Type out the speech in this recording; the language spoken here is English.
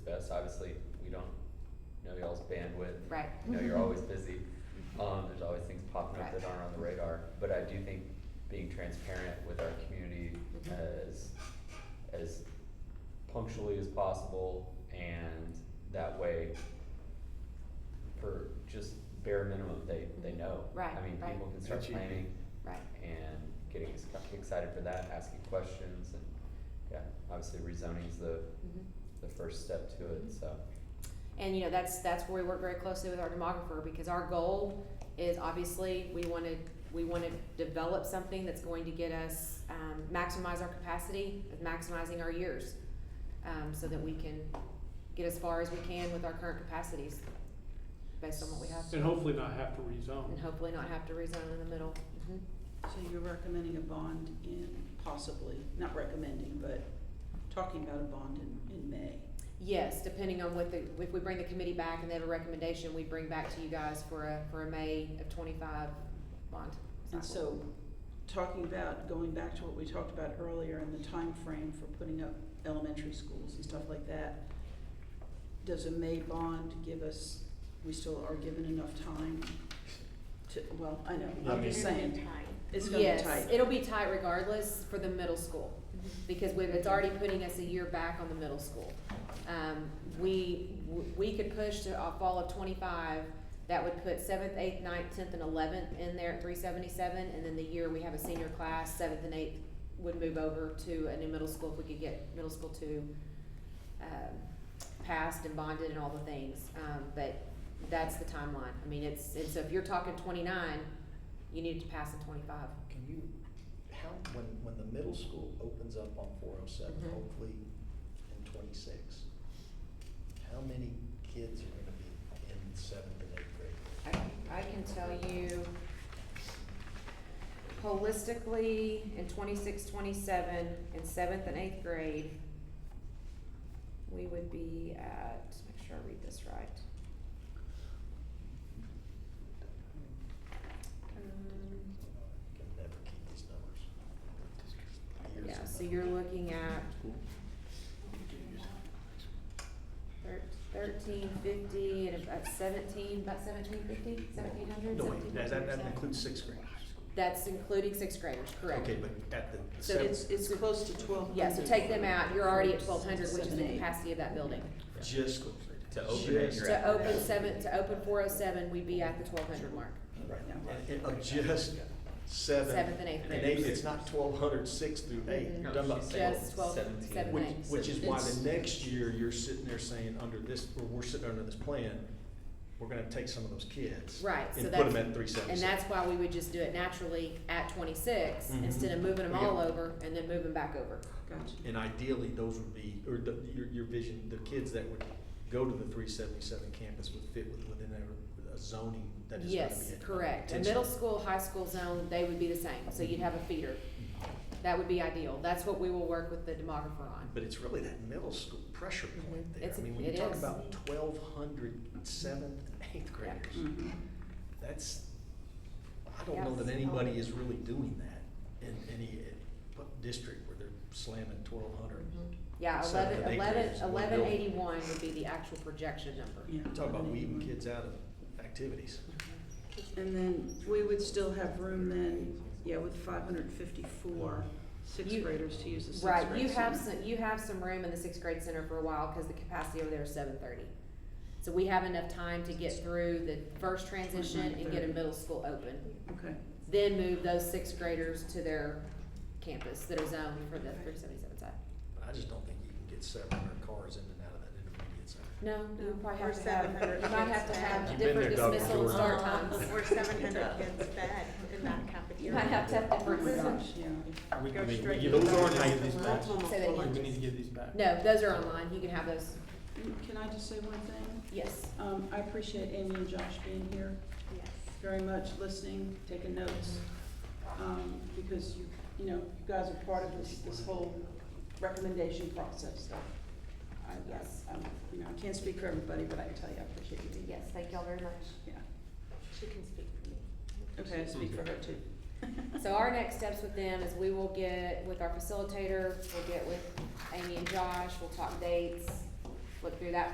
us, obviously, we don't know y'all's bandwidth. Right. Mm-hmm. You know, you're always busy, um, there's always things popping up Right. that aren't on the radar, but I do think being transparent with our community Mhm. as, as punctually as possible, and that way, for just bare minimum, they, they know. Right, I mean, right. people can start That's easy. planning Right. and getting ex- excited for that, asking questions, and, yeah, obviously rezoning's the, Mhm. the first step to it, so. And you know, that's, that's where we work very closely with our demographer, because our goal is obviously, we wanna, we wanna develop something that's going to get us, um, maximize our capacity, maximizing our years, um, so that we can get as far as we can with our current capacities, based on what we have, And hopefully not have to and rezone. hopefully not have to rezone in the middle. Mhm. So you're recommending a bond in, possibly, not recommending, but talking about a bond in, in May. Yes, depending on what the, if we bring the committee back and they have a recommendation, we bring back to you guys for a, for a May of twenty-five bond. And cycle. so, talking about, going back to what we talked about earlier and the time frame for putting up elementary schools and stuff like that, does a May bond give us, we still are given enough time to, well, I know, I'm just saying, it's gonna be Yes, tight. it'll be tight regardless for the middle school, because we it's already putting us a year back on the middle school. Um, we, we could push to uh, fall of twenty-five, that would put seventh, eighth, ninth, tenth, and eleventh in there at three seventy-seven, and then the year we have a senior class, seventh and eighth would move over to a new middle school if we could get middle school two, um, passed and bonded and all the things, um, but that's the timeline. I mean, it's, and so if you're talking twenty-nine, you need to pass at twenty-five. Can you, how, when, when the middle school opens up on four oh seven, Mhm. hopefully in twenty-six, how many kids are gonna be in seventh and eighth grade? I, I can tell you holistically, in twenty-six, twenty-seven, in seventh and eighth grade, we would be at, make sure I read this right. Um, Can never keep these numbers. Years Yeah, and so you're numbers. looking at thir- thirteen fifty and about seventeen, about seventeen fifty, seventeen hundred, No, wait, seventeen that, that, that fifty. includes sixth graders. That's including sixth graders, correct? Okay, but at the- the So it's, seventh, it's close to twelve hundred. Yeah, so take them out, you're already at twelve hundred, which is Seven, the eight. capacity of that building. just. To open it, Just- you're at To open seven, to open four oh seven, we'd be at the twelve hundred mark. Right, Yeah. and- and Of just seven. Seventh and eighth and grade. eighth, it's not twelve hundred, six through eight, Mhm. you're talking about Just twelve. Just twelve, seven, Seventeen. Which, eight. which is why It's- the next year, you're sitting there saying, under this, or we're sitting under this plan, we're gonna take some of those kids. Right, so And that's- put them at three seven And six. that's why we would just do it naturally at twenty-six, Mhm. instead of moving them Yeah. all over and then moving back over. Gotcha. And ideally, those would be, or the, your, your vision, the kids that would go to the three seventy-seven campus would fit with, within a, a zoning that is gonna be. Yes, correct. A middle school, high school zone, they would be the same, so Mm-hmm. you'd have a feeder. That would be ideal. That's what we will work with the demographer on. But it's really that middle school pressure point Mhm. there. It's- I mean, when you it talk is. about twelve hundred seventh and eighth graders, Mhm. that's, I don't know Yes. that anybody is really doing that in any uh, district where they're slamming twelve hundred. Mm-hmm. Yeah, Seven eleven, and eight eleven, grades, one eleven building. eighty-one would be the actual projection number. Yeah. Talk about weeding Anyway. kids out of activities. And then we would still have room then, yeah, with five hundred fifty-four You- sixth graders to use the sixth grade. Right, you have center. some, you have some room in the sixth grade center for a while, cause the capacity over there is seven thirty. So we have enough time to get through the first transition and get a 29:30. middle school open. Okay, Then move those sixth graders to their campus that are zoned for the three seventy-seven side. But I just don't think you can get seven hundred cars in and out of that intermediate center. No, you would probably have Or to have, 700 you might have to kids have different back. You've been there, Dr. dismissal and start Jordan. Um, times. We're seven hundred kids fed in that cafeteria. You might have to have oh my different, gosh, yeah. we- Go we straight give to those the aren't back. even these That's back. almost Say that full. again. We need to give these back. no, those are online, you can have those, Can I just say one thing? yes. Um, I appreciate Amy and Josh being here Yes. very much, listening, taking notes. Um, because you, you know, you guys are part of this, this whole recommendation process, so. I, Yes. I, I'm- you know, I can't speak for everybody, but I can tell you I appreciate you being here. Yes, thank y'all very much. Yeah, She can speak for me. okay, I speak for her too. So our next steps with them is we will get with our facilitator, we'll get with Amy and Josh, we'll talk dates, look through that